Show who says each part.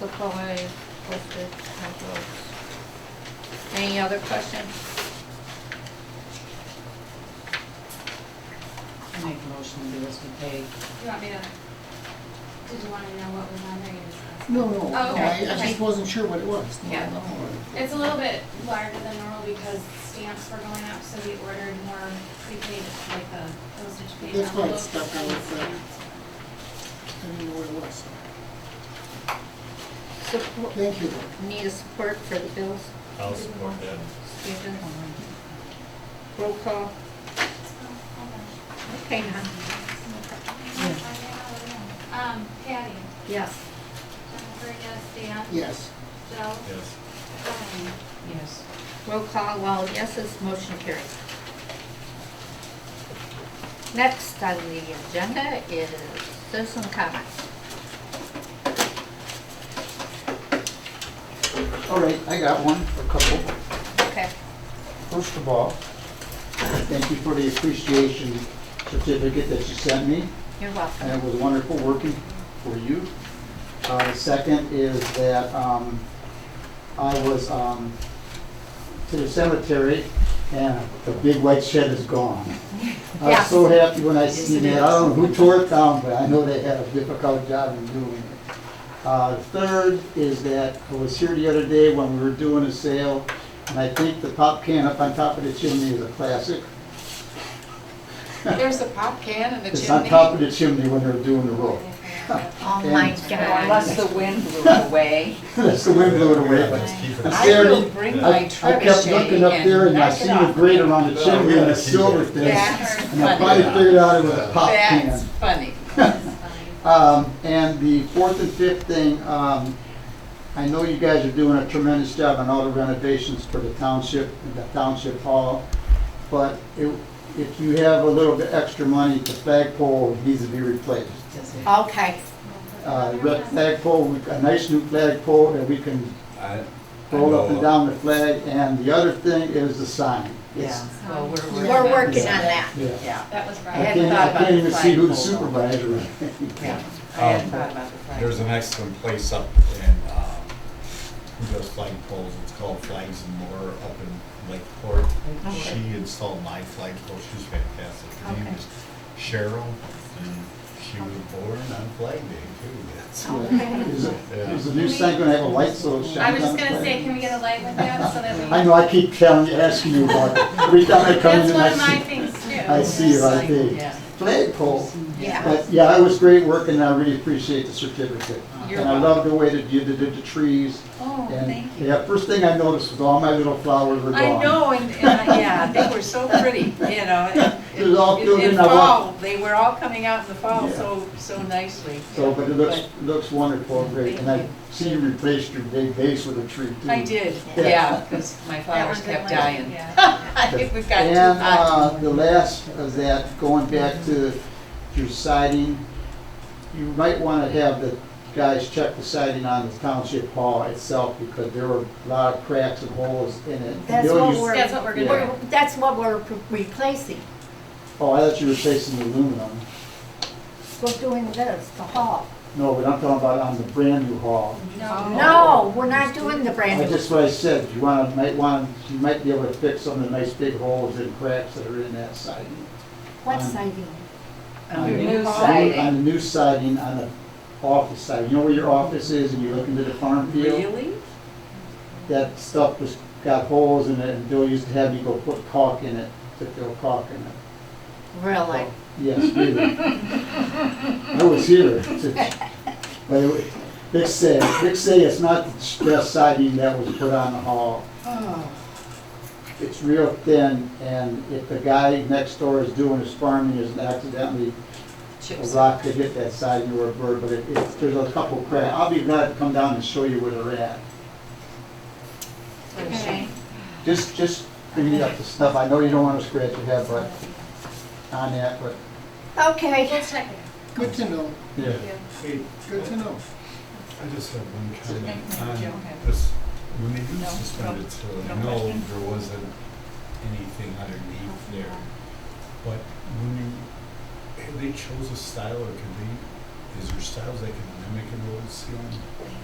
Speaker 1: the COA is listed, no votes. Any other questions?
Speaker 2: I make a motion to do as we pay.
Speaker 3: You want me to, did you want to know what was on there? You just asked.
Speaker 4: No, no, no,
Speaker 3: Oh, okay,
Speaker 4: I, I
Speaker 3: okay.
Speaker 4: just wasn't sure what it was. No,
Speaker 1: Yeah.
Speaker 4: no,
Speaker 3: It's a little bit larger than normal because stamps were going up, so we ordered more prepaid, like the postage paid
Speaker 4: That's why it's
Speaker 3: envelopes
Speaker 4: stuck on
Speaker 3: and
Speaker 4: the front.
Speaker 3: stamps.
Speaker 4: I didn't know what it was.
Speaker 1: Support,
Speaker 4: Thank you, though.
Speaker 1: need a support for the bills,
Speaker 5: I'll support that.
Speaker 1: Stephen? Roll call, okay, now,
Speaker 3: Um, Patty,
Speaker 1: yes.
Speaker 3: Jennifer, yes, Dan,
Speaker 4: Yes,
Speaker 3: Joe,
Speaker 5: Yes.
Speaker 3: Colleen.
Speaker 2: Yes.
Speaker 1: Roll call, all yeses, motion carried. Next on the agenda is citizen comments.
Speaker 6: All right, I got one, a couple.
Speaker 1: Okay.
Speaker 6: First of all, thank you for the appreciation certificate that you sent me,
Speaker 1: You're
Speaker 6: and it
Speaker 1: welcome.
Speaker 6: was wonderful working for you. Uh, the second is that, um, I was, um, to the cemetery, and the big white shed is gone. I was so happy when I seen that, I don't know who tore it down, but I know they had a difficult job in doing it. Uh, third is that I was here the other day when we were doing a sale, and I think the pop can up on top of the chimney is a classic.
Speaker 2: There's a pop can and a
Speaker 6: It's on top of the chimney when they're doing the road.
Speaker 1: Oh my
Speaker 2: Unless
Speaker 1: God.
Speaker 2: the wind blew it away.
Speaker 6: That's the wind blew it away.
Speaker 5: Let's keep it.
Speaker 6: It's
Speaker 2: I
Speaker 6: there.
Speaker 2: will bring
Speaker 6: I
Speaker 2: my
Speaker 6: I kept
Speaker 2: trebuchet
Speaker 6: looking up there
Speaker 2: and
Speaker 6: and I
Speaker 2: knock it
Speaker 6: seen a
Speaker 2: off.
Speaker 6: grate around the chimney and a silver thing,
Speaker 2: Yeah.
Speaker 3: Jennifer,
Speaker 6: and I finally figured out it was a pop can.
Speaker 2: That's funny.
Speaker 3: it's fine.
Speaker 6: Um, and the fourth and fifth thing, um, I know you guys are doing a tremendous job on all the renovations for the township, the township hall. But if, if you have a little bit extra money, the flagpole needs to be replaced.
Speaker 1: Okay,
Speaker 6: Uh, red flagpole, we- a nice new flagpole that we can
Speaker 5: I- I
Speaker 6: roll up and
Speaker 5: know-
Speaker 6: down the flag. And the other thing is the sign. It's-
Speaker 2: Yeah, well, we're.
Speaker 1: we're working on that.
Speaker 6: Yeah.
Speaker 2: Yeah.
Speaker 3: That was
Speaker 6: I
Speaker 3: Friday.
Speaker 2: hadn't
Speaker 6: can't,
Speaker 2: thought
Speaker 6: I
Speaker 2: about
Speaker 6: can't
Speaker 2: the
Speaker 6: even see who the
Speaker 2: flagpole,
Speaker 6: supervisor is.
Speaker 2: Yeah, I hadn't thought about the
Speaker 5: There's
Speaker 2: price.
Speaker 5: an excellent place up in, um, who does flag poles, it's called Flags and More up in Lakeport.
Speaker 1: Okay.
Speaker 5: She installed my flag pole, she's fantastic. Her name
Speaker 1: Okay.
Speaker 5: is Cheryl, and she was born on Flag Day too. That's-
Speaker 6: Is it- is the new sign gonna have a light so it shines
Speaker 3: I was just
Speaker 6: on the
Speaker 3: gonna
Speaker 6: flag?
Speaker 3: say, can we get a light with that so that we?
Speaker 6: I know, I keep telling you, asking you about it. Every time I come
Speaker 3: That's
Speaker 6: in,
Speaker 3: one of my
Speaker 6: I see,
Speaker 3: things too.
Speaker 6: I see it, I think.
Speaker 2: Yeah.
Speaker 6: Flagpole.
Speaker 1: Yeah.
Speaker 6: But yeah, it was great work and I really appreciate the certificate.
Speaker 2: You're
Speaker 6: And I
Speaker 2: welcome.
Speaker 6: love the way that you did the trees.
Speaker 2: Oh,
Speaker 6: And
Speaker 2: thank you.
Speaker 6: yeah, first thing I noticed was all my little flowers were gone.
Speaker 2: I know, and, and, I- yeah, they were so pretty, you know. and-
Speaker 6: It was all
Speaker 2: and-
Speaker 6: filled in,
Speaker 2: and
Speaker 6: I walked-
Speaker 2: fall, They were all coming out in the fall
Speaker 6: Yeah.
Speaker 2: so, so nicely.
Speaker 6: So, but it looks, looks wonderful, great. And I
Speaker 2: Thank
Speaker 6: see you replaced your big vase with a tree too.
Speaker 2: I did,
Speaker 6: mm. Yeah.
Speaker 2: yeah, because my
Speaker 3: That
Speaker 2: flowers
Speaker 3: one's
Speaker 2: kept
Speaker 3: in line,
Speaker 2: dying.
Speaker 3: yeah.
Speaker 2: I think we've got two
Speaker 6: And
Speaker 2: hot.
Speaker 6: uh, the last of that, going back to your siding, you might want to have the guys check the siding on the township hall itself because there were a lot of cracks and holes in it. And
Speaker 1: That's
Speaker 6: they'll
Speaker 1: what
Speaker 6: use-
Speaker 1: we're.
Speaker 3: That's what we're gonna
Speaker 1: we're- That's what we're replacing.
Speaker 6: Oh, I thought you were replacing the aluminum.
Speaker 1: We're doing this, the hall.
Speaker 6: No, but I'm talking about on the brand new hall.
Speaker 3: No.
Speaker 1: No, we're not doing the brand
Speaker 6: I
Speaker 1: new.
Speaker 6: just what I said, you want, might want, you might be able to fix some of the nice big holes and cracks that are in that siding.
Speaker 1: What siding?
Speaker 2: On the
Speaker 6: the
Speaker 2: new
Speaker 6: new-
Speaker 2: siding.
Speaker 6: On the new siding, on the office side, you know where your office is and you look into the farm field?
Speaker 2: Really?
Speaker 6: That stuff just got holes in it and Bill used to have me go put caulk in it, to fill caulk in it.
Speaker 1: Really?
Speaker 6: Yes, really. I was here. But it, Vic said, Vic said it's not the best siding that was put on the hall. It's real thin and if the guy next door is doing his farming, is accidentally a
Speaker 2: Chips.
Speaker 6: rock to hit that side of your bird, but it, it, there's a couple cracks. I'll be glad to come down and show you where they're at. Oh.
Speaker 1: Okay.
Speaker 6: Just, just clean up the stuff. I know you don't wanna scratch your head, but on that, but.
Speaker 1: Okay,
Speaker 3: We'll check it out.
Speaker 4: good to know,
Speaker 6: Yeah.
Speaker 5: Hey,
Speaker 4: good to know.
Speaker 5: I just have one
Speaker 2: Okay.
Speaker 5: comment.
Speaker 2: Joe,
Speaker 5: on
Speaker 2: have-
Speaker 5: This, when they do
Speaker 2: No,
Speaker 5: suspend
Speaker 2: no,
Speaker 5: it till,
Speaker 2: no
Speaker 5: I know
Speaker 2: question.
Speaker 5: there wasn't anything underneath there. But when you, have they chose a style or can they, is there styles they can mimic in the old ceiling?